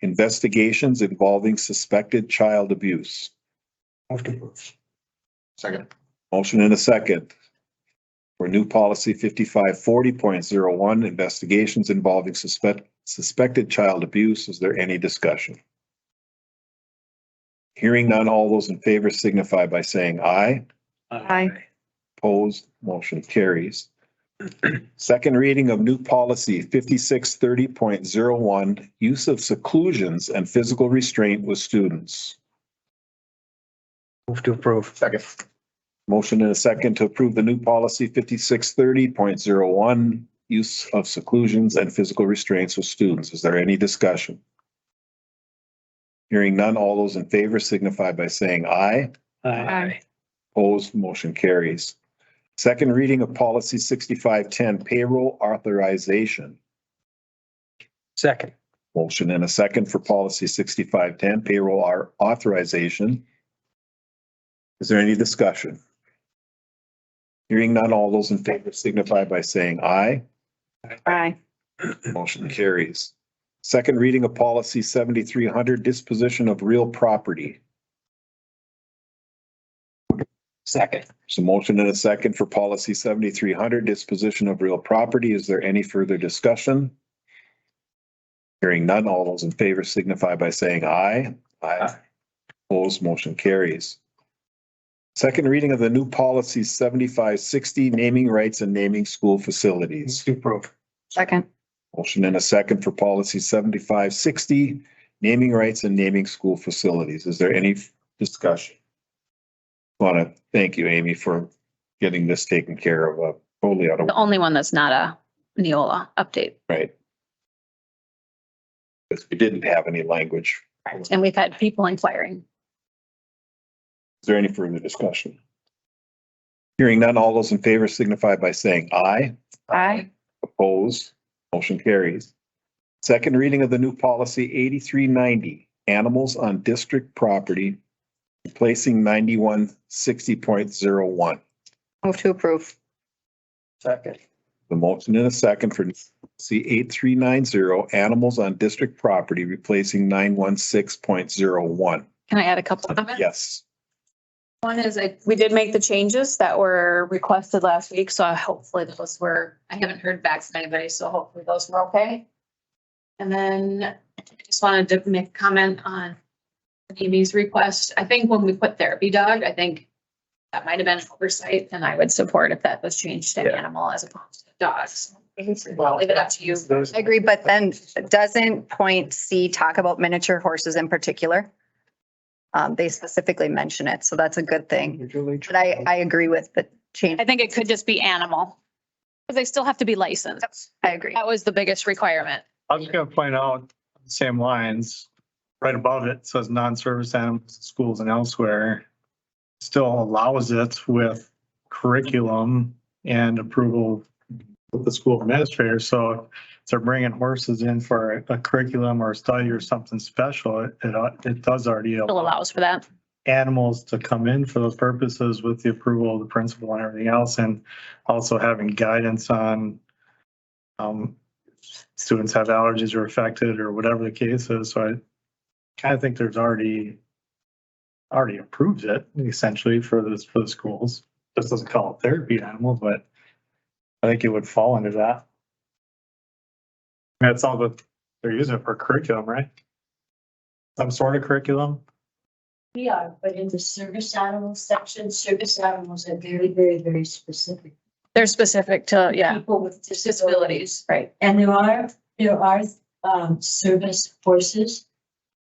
investigations involving suspected child abuse. Move to approve. Second. Motion and a second. For new policy fifty-five forty point zero one, investigations involving suspect, suspected child abuse. Is there any discussion? Hearing none, all those in favor signify by saying aye. Aye. Opposed, motion carries. Second reading of new policy fifty-six thirty point zero one, use of seclusions and physical restraint with students. Move to approve. Second. Motion and a second to approve the new policy fifty-six thirty point zero one, use of seclusions and physical restraints with students. Is there any discussion? Hearing none, all those in favor signify by saying aye. Aye. Opposed, motion carries. Second reading of policy sixty-five ten payroll authorization. Second. Motion and a second for policy sixty-five ten payroll au- authorization. Is there any discussion? Hearing none, all those in favor signify by saying aye. Aye. Motion carries. Second reading of policy seventy-three hundred disposition of real property. Second. So motion and a second for policy seventy-three hundred disposition of real property. Is there any further discussion? Hearing none, all those in favor signify by saying aye. Aye. Opposed, motion carries. Second reading of the new policy seventy-five sixty, naming rights and naming school Move facilities. to approve. Second. Motion and a second for policy seventy-five sixty, naming rights and naming school facilities. Is there any discussion? Want to thank you, Amy, for getting this taken care of, uh, totally out of, The only one that's not a Neola update. right? Because we didn't have any language. And we've had people inquiring. Is there any further discussion? Hearing none, all those in favor signify by saying aye. Aye. Opposed, motion carries. Second reading of the new policy eighty-three ninety, animals on district property, replacing ninety-one sixty point zero one. Move to approve. Second. The motion in a second for C eight three nine zero, animals on district property, replacing nine one six point zero one. Can I add a couple of comments? Yes, One is like, we did make the changes that were requested last week, so hopefully those were, I haven't heard back from anybody, so hopefully those were okay. And then I just wanted to make a comment on Amy's request. I think when we put therapy dog, I think that might have been an oversight and I would support if that was changed to Yeah. animal as opposed to dogs. Leave it up to you. Those- I agree, but then doesn't point C talk about miniature horses in particular? Um, they specifically mention it, so that's a good thing. Individually. But I, I agree with the change. I think it could just be animal. Cause they still have to be licensed. I agree. That was the biggest requirement. I was gonna point out, same lines, right above it says non-service animals, in schools and elsewhere. Still allows it with curriculum and approval with the school administrator, so if they're bringing horses in for a curriculum or a study or something special, it, it does already Still allow allows for that. animals to come in for those purposes with the approval of the principal and everything else, and also having guidance on um, students have allergies or affected or whatever the case is, so I kind of think there's already already approves it essentially for this, for the schools. This doesn't call it therapy animal, but I think it would fall under that. That's all that they're using it for curriculum, right? Some sort of curriculum? We are, but in the service animals section, service animals are very, very, very specific. They're specific to, yeah, People with disabilities. disabilities, right? And there are, there are, um, service horses,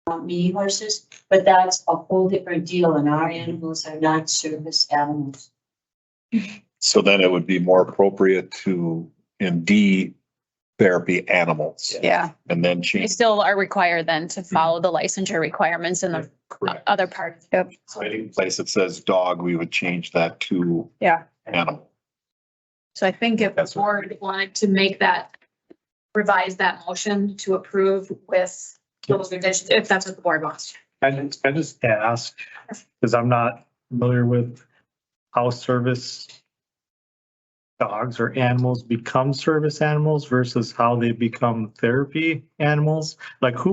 uh, mini horses, but that's a whole different deal and our animals are not service animals. so then it would be more appropriate to in D therapy animals Yeah. and then They change. still are required then to follow the licensure requirements in the Hmm. Correct. other part. So any place that says dog, we would change that to Yeah. animal. So I think if the That's what- board wanted to make that, revise that motion to approve with those revisions, if that's what the board wants. I just, I just ask, because I'm not familiar with how service dogs or animals become service animals versus how they become therapy animals. Like who